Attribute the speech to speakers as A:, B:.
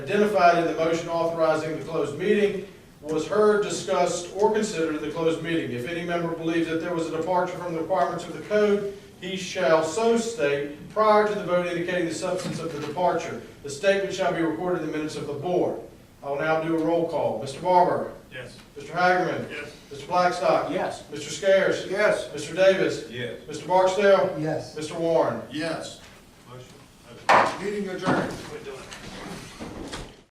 A: identified in the motion authorizing the closed meeting was heard, discussed, or considered in the closed meeting. If any member believes that there was a departure from the requirements of the code, he shall so state prior to the vote indicating the substance of the departure. The statement shall be recorded in the minutes of the board. I will now do a roll call. Mr. Barber?
B: Yes.
A: Mr. Hagerman?
B: Yes.
A: Mr. Blackstock?
C: Yes.
A: Mr. Scares?
C: Yes.
A: Mr. Davis?
B: Yes.
A: Mr. Barksdale?
C: Yes.
A: Mr. Warren?
D: Yes.
B: Motion.
D: Meeting adjourned.
B: We're doing it.